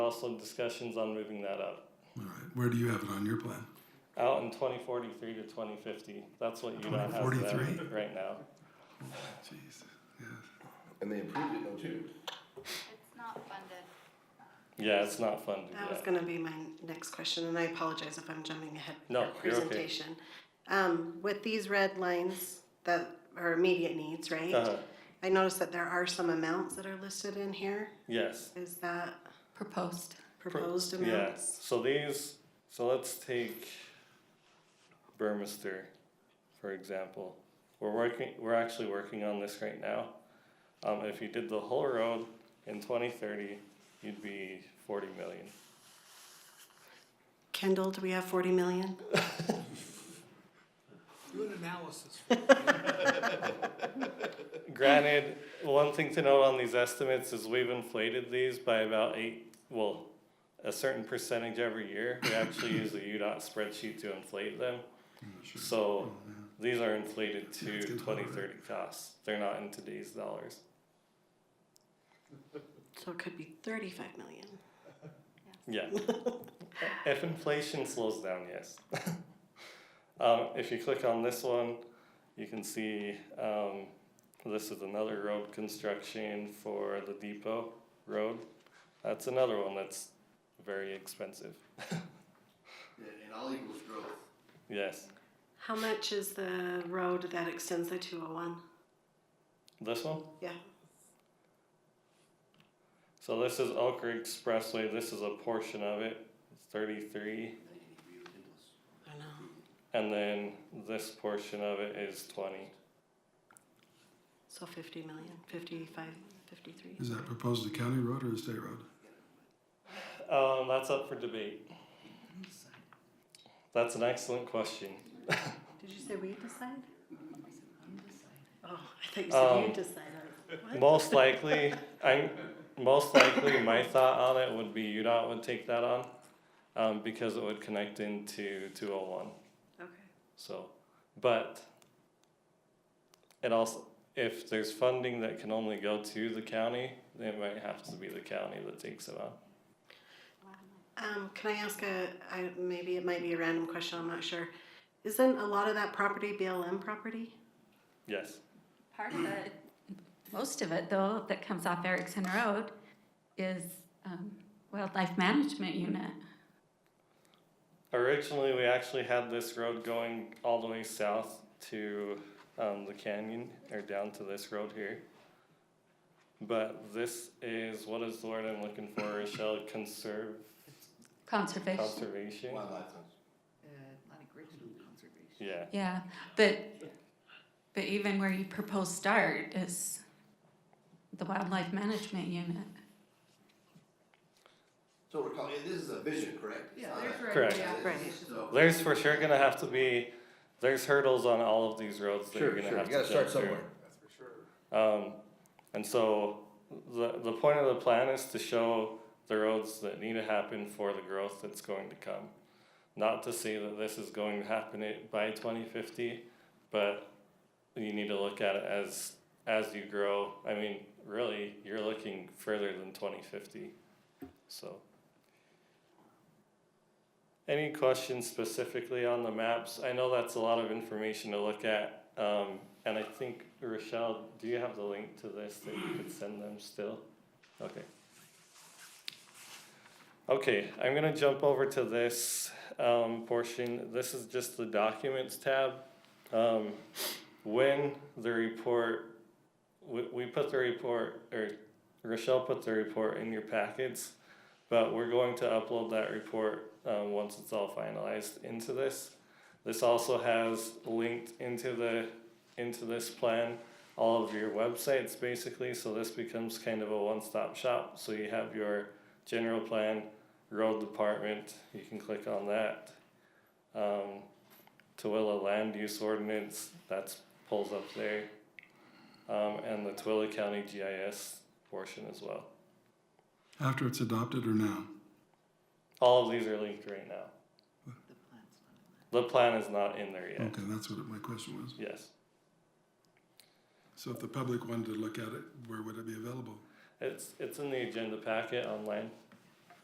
also discussions on moving that up All right, where do you have it on your plan? out in 2043 to 2050. That's what UDOT has there 2043? right now. Jeez, yeah. And they improved it, don't you? It's not funded. Yeah, it's not funded That was yet. going to be my next question, and I apologize if I'm jumping ahead. with No, your you're okay. Presentation. Um, with these red lines that are immediate needs, right? Uh-huh. I noticed that there are some amounts that are listed in here. Yes. Is that Proposed. proposed Yeah. amounts? So these, so let's take Burmester, for example. We're working, we're actually working on this right now. Um, if you did the whole road in 2030, you'd be 40 million. Kendall, do we have forty million? Do an analysis. Granted, one thing to note on these estimates is we've inflated these by about eight, well, a certain percentage every year. We actually use the UDOT spreadsheet to inflate them. So these are inflated Yeah, it's to getting twenty harder. thirty costs. They're not in today's dollars. So it could be thirty-five million. Yeah. if inflation slows down, yes. um, if you click on this one, you can see um, this is another road construction for the depot road. That's another one that's very expensive. And all equals growth. Yes. How much is the road that extends the two oh one? This one? Yeah. So this is Elk Creek Expressway. This is a portion of it. It's 33. I don't know. And then this portion of it is 20. So fifty million, fifty-five, fifty-three. Is that proposed a county road or a state road? Um, that's up for debate. That's an excellent question. Did you say we decide? Oh, I thought you said Um, you decide. I was like, What? Most likely, I'm most likely my thought on it would be UDOT would take that on, um, because it would connect into two hundred one. Okay. So, but it also if there's funding that can only go to the county, then it might have to be the county that takes it on. Um, can I ask a, I, maybe it might be a random question, I'm not sure. Isn't a lot of that property BLM property? Yes. Part of it, most of it though, that comes off Erickson Road is um, Wildlife Management Unit. Originally, we actually had this road going all the way south to um, the canyon or down to this road here. But this is what is the word I'm looking for, Rochelle? Conserve Conservation, conservation. Wildlife. Atlantic Ridge Conservation. Yeah, yeah, but, but even where you propose start is the Wildlife Management Unit. So recall, this is a vision, correct? It's Yeah, not there's a- where. Correct. Yeah, Right. it's- so- there's for sure gonna have to be there's hurdles on all of these roads that Sure, you're gonna sure, have you gotta to start jump through. somewhere. Um, and so the the point of the plan is to show the roads that need to happen for the growth that's going to come. Not to say that this is going to happen it by twenty fifty, but you need to look at it as as you grow. I mean, really, you're looking further than twenty fifty. So any questions specifically on the maps? I know that's a lot of information to look at. Um, and I think, Rochelle, do you have the link to this that you could send them still? Okay. Okay, I'm gonna jump over to this, um, portion. This is just the documents tab. Um, when the report, we, we put the report, or Rochelle put the report in your packets. But we're going to upload that report um, once it's all finalized into this. This also has linked into the into this plan all of your websites basically. So this becomes kind of a one-stop shop. So you have your general plan, road department. You can click on that. Um, Tooele land use ordinance that's pulls up there, um, and the Tooele County GIS portion as well. After it's adopted or now? All of these are linked right now. The plan is not in there yet. Okay, that's what my question was. Yes. So if the public wanted to look at it, where would it be available? It's it's in the agenda packet online.